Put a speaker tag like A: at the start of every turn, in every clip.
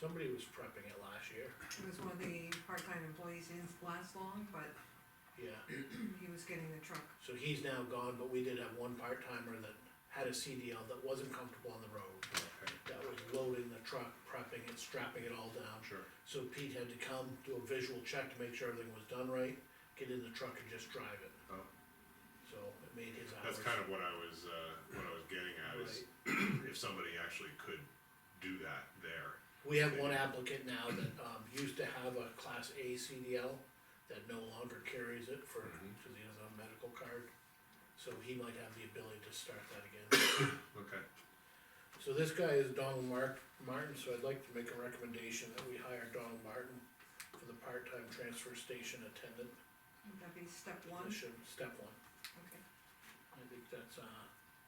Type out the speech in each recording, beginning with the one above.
A: Somebody was prepping it last year,
B: It was one of the part-time employees, he didn't last long, but
A: yeah.
B: he was getting the truck.
A: So he's now gone, but we did have one part-timer that had a CDL that wasn't comfortable on the road. That was loading the truck, prepping it, strapping it all down.
C: Sure.
A: So Pete had to come, do a visual check to make sure everything was done right, get in the truck and just drive it.
C: Oh.
A: So it made his hours.
C: That's kind of what I was, uh, what I was getting at is if somebody actually could do that there.
A: We have one applicant now that, um, used to have a class A CDL that no longer carries it for, cause he doesn't have a medical card. So he might have the ability to start that again.
C: Okay.
A: So this guy is Donald Mark, Martin, so I'd like to make a recommendation that we hire Donald Martin for the part-time transfer station attendant
B: Would that be step one?
A: position, step one.
B: Okay.
A: I think that's, uh,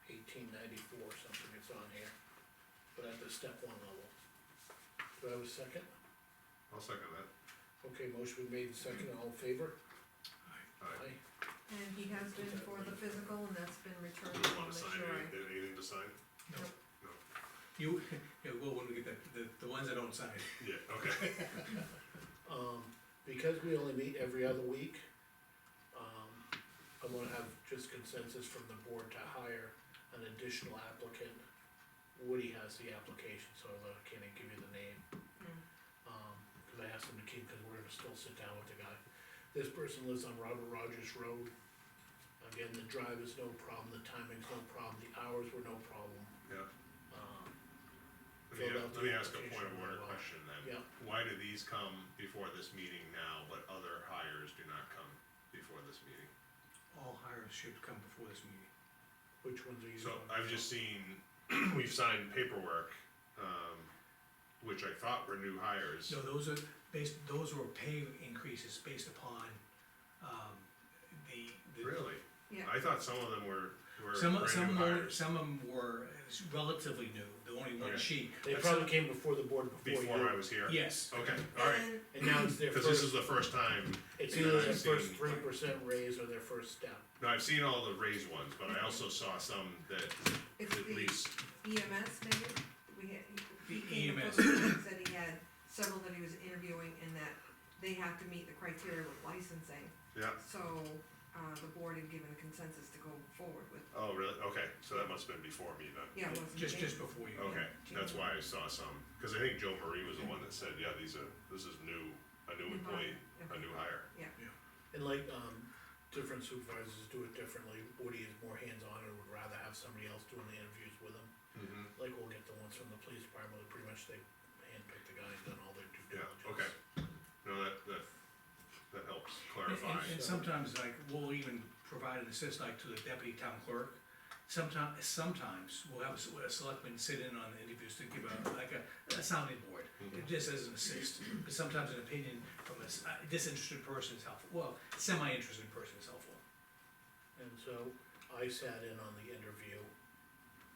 A: eighteen ninety-four, something it's on here, but at the step one level. Do I have a second?
C: I'll second that.
A: Okay, motion been made, and second, all in favor?
C: Alright,
A: Aye.
B: And he has been for the physical, and that's been returned
C: do
B: to
C: we wanna
B: the
C: sign
B: surety.
C: anything, anything to sign?
B: Nope.
D: You, yeah, well, when we get the, the, the ones that don't sign.
C: Yeah, okay.
A: Um, because we only meet every other week, um, I'm gonna have just consensus from the board to hire an additional applicant. Woody has the application, so I can't even give you the name. Um, cause I asked him to keep, cause we're gonna still sit down with the guy. This person lives on Robert Rogers Road. Again, the drive is no problem, the timing's no problem, the hours were no problem.
C: Yeah.
A: Um,
C: Let me,
A: Filled out
C: let me
A: the
C: ask a point
A: application
C: of order
A: really well.
C: question then.
A: Yeah.
C: Why do these come before this meeting now, but other hires do not come before this meeting?
D: All hires should come before this meeting.
A: which ones are you?
C: So
A: going?
C: I've just seen, we've signed paperwork, um, which I thought were new hires.
D: No, those are based, those were pay increases based upon, um, the. the-
C: Really?
B: Yeah,
C: I thought some of them were, were
D: Some,
C: brand
D: some
C: new
D: were,
C: hires.
D: some of them were relatively new, the only one
C: Okay.
D: she.
A: They probably came before the board before you.
C: Before I was here?
D: Yes,
C: Okay, alright,
B: and
A: And now it's their
C: cause
A: first.
C: this is the first time,
A: It's
C: Yeah,
A: either their
C: I've
A: first
C: seen-
A: three percent raise or their first step.
C: no, I've seen all the raised ones, but I also saw some that
B: it's
C: at
B: the
C: least,
B: EMS maybe, we had, he
D: The
C: E
B: came
D: EMS.
B: up with, he said he had several that he was interviewing, and that they have to meet the criteria with licensing.
C: yeah,
B: So, uh, the board had given a consensus to go forward with,
C: oh, really, okay, so that must've been before me then.
B: yeah, it wasn't. me.
D: just, just before you.
C: Okay, that's why I saw some, cause I think Joe Marie was the one that said, yeah, these are, this is new, a new
B: New
C: employee,
B: hire,
C: a
B: okay.
C: new hire.
A: And like, um, different supervisors do it differently, Woody is more hands-on and would rather have somebody else doing the interviews with him.
C: Mm-hmm.
A: Like we'll get the ones from the police department, where pretty much they handpick the guy and done all their due
C: Yeah,
A: diligence.
C: okay. No, that, that, that helps
D: And-
C: clarify,
D: And, and sometimes like, we'll even provide an assist like to the deputy town clerk. Sometimes, sometimes we'll have a s- a selectman sit in on the interviews to give a, like a, a sounding board, just as an assist. But sometimes an opinion from a s- a disinterested person is helpful, well, semi-interested person is helpful.
A: And so I sat in on the interview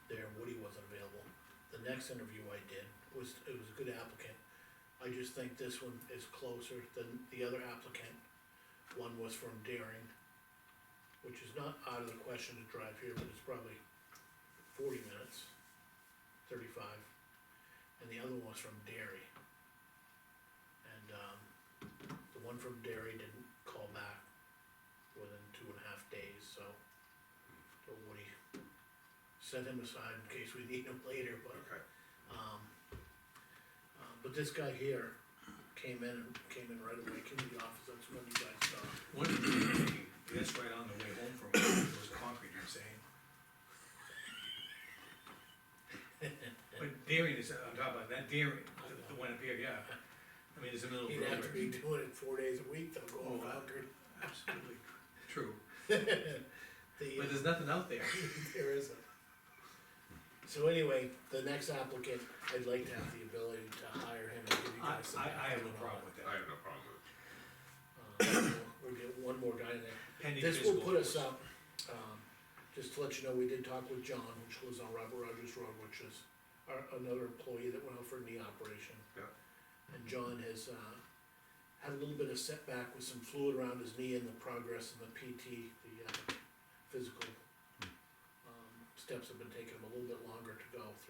A: there, Woody wasn't available. The next interview I did was, it was a good applicant. I just think this one is closer than the other applicant. One was from Daring, which is not out of the question to drive here, but it's probably forty minutes, thirty-five. And the other one was from Derry. And, um, the one from Derry didn't call back within two and a half days, so. So Woody set him aside in case we need him later, but,
C: okay,
A: um, uh, but this guy here came in, and came in right away, came to the office, that's when you guys saw. him.
D: One, that's right on the way home from, was concrete, you're saying? But Darien is, I'm talking about that Darien, the, the one up here, yeah. I mean, it's a middle of
A: He'd have to
D: nowhere.
A: be doing it four days a week though, going
D: Oh, wow.
A: Concord.
D: Absolutely, true,
A: The,
D: but
A: uh,
D: there's nothing out there.
A: there isn't. So anyway, the next applicant, I'd like to have the ability to hire him and give you
D: I,
A: guys some.
D: I, I have no
A: background on it.
D: problem with
C: I
D: that.
C: have no problem with it.
A: Uh, We'll we'll get one more guy in there.
D: Pending
A: This will
D: physical,
A: put
D: of
A: us
D: course.
A: up, um, just to let you know, we did talk with John, which lives on Robert Rogers Road, which is our, another employee that went out for a knee operation.
C: Yeah.
A: And John has, uh, had a little bit of setback with some fluid around his knee and the progress and the PT, the, uh, physical. Um, steps have been taking him a little bit longer to go through.